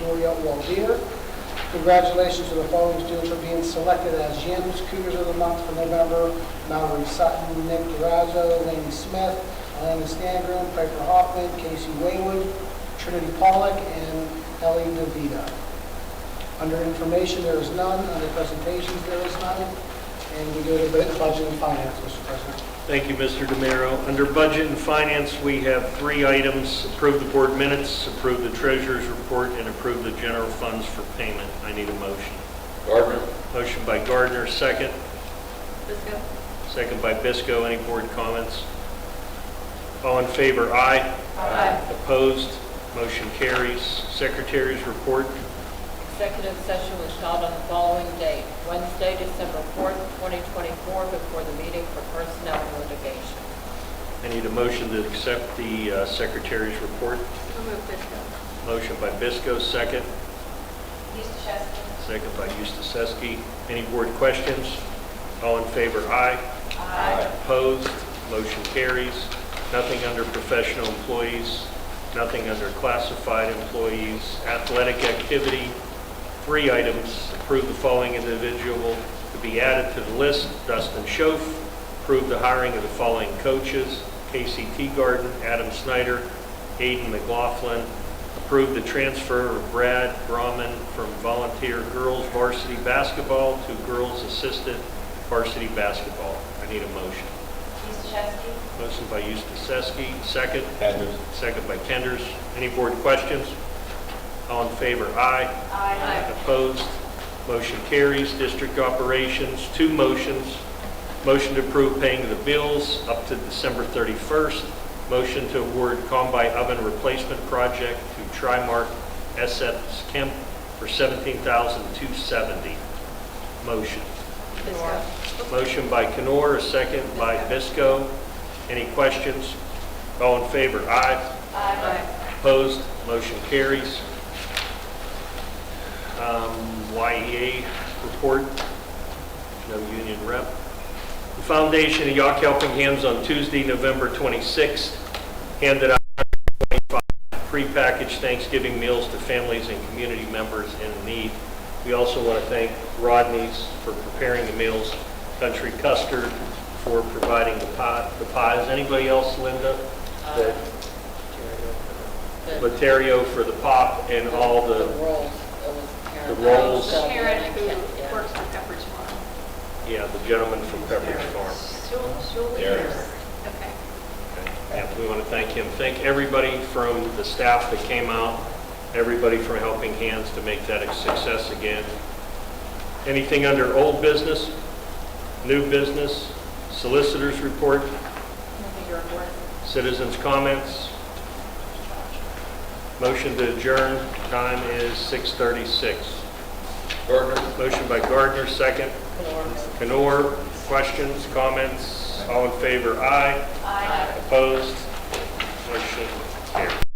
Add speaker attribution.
Speaker 1: Maria Waldeer. Congratulations to the following students for being selected as Yams Cougars of the Month for November. Mallory Sutton, Nick Durazzo, Laney Smith, Alana Stangram, Piper Hoffman, Casey Waywood, Trinity Pollock, and Ellie DeVita. Under information, there is none. Under presentations, there is none. And we go to bu- budget and finance, Mr. President.
Speaker 2: Thank you, Mr. DeMiro. Under Budget and Finance, we have three items. Approve the board minutes, approve the treasurer's report, and approve the general funds for payment. I need a motion.
Speaker 3: Gardner.
Speaker 2: Motion by Gardner, second.
Speaker 4: Bisco,
Speaker 2: Second by Bisco. Any board comments? All in favor, aye.
Speaker 4: Aye.
Speaker 2: Opposed, motion carries. Secretary's report.
Speaker 4: executive session was held on the following date, Wednesday, December 4th, 2024, before the meeting for personnel and litigation.
Speaker 2: I need a motion to accept the uh, secretary's report.
Speaker 4: So moved, Bisco.
Speaker 2: Motion by Bisco, second.
Speaker 4: East Chester.
Speaker 2: Second by Eustacek. Any board questions? All in favor, aye.
Speaker 4: Aye.
Speaker 2: Opposed, motion carries. Nothing under professional employees, nothing under classified employees, athletic activity. Three items, approve the following individual to be added to the list, Dustin Schoaf. Approve the hiring of the following coaches, Casey Teagarden, Adam Snyder, Aiden McLaughlin. Approve the transfer of Brad Brahman from volunteer girls varsity basketball to girls assistant varsity basketball. I need a motion.
Speaker 4: Eastchester.
Speaker 2: Motion by Eustacek, second.
Speaker 3: Kenders.
Speaker 2: Second by Kenders. Any board questions? All in favor, aye.
Speaker 4: Aye.
Speaker 2: Opposed? Motion carries. District operations, two motions. Motion to approve paying the bills up to December 31st. Motion to award Combi Oven Replacement Project to Trimark SS Kemp for $17,270. Motion.
Speaker 4: Bisco.
Speaker 2: Motion by Canor, a second by Bisco. Any questions? All in favor? Aye.
Speaker 4: Aye.
Speaker 2: Opposed? Motion carries. Um, YEA report, no union rep. The Foundation of Yawk Helping Hands on Tuesday, November 26th, handed out 25 prepackaged Thanksgiving meals to families and community members in need. We also want to thank Rodney's for preparing the meals, Country Custard for providing the pie- the pies. Anybody else, Linda? that-
Speaker 4: Uh, The-
Speaker 2: Laterio for the pop and all
Speaker 4: The
Speaker 2: the,
Speaker 4: rolls. It was Karen.
Speaker 2: The rolls.
Speaker 4: Shelby,
Speaker 5: Karen,
Speaker 4: and Kent, yeah.
Speaker 5: who works for Pepperidge Farm.
Speaker 2: yeah, the gentleman from Pepperidge Farm.
Speaker 3: There.
Speaker 5: Okay.
Speaker 2: Yeah, we want to thank him. Thank everybody from the staff that came out, everybody from Helping Hands to make that a success again. Anything under old business, new business, solicitors report,
Speaker 4: Nothing to report.
Speaker 2: citizens comments? Motion to adjourn, time is 6:36.
Speaker 3: Gardner.
Speaker 2: Motion by Gardner, second.
Speaker 4: Lenore.
Speaker 2: Canor, questions, comments, all in favor, aye.
Speaker 4: Aye.
Speaker 2: Opposed, motion carried.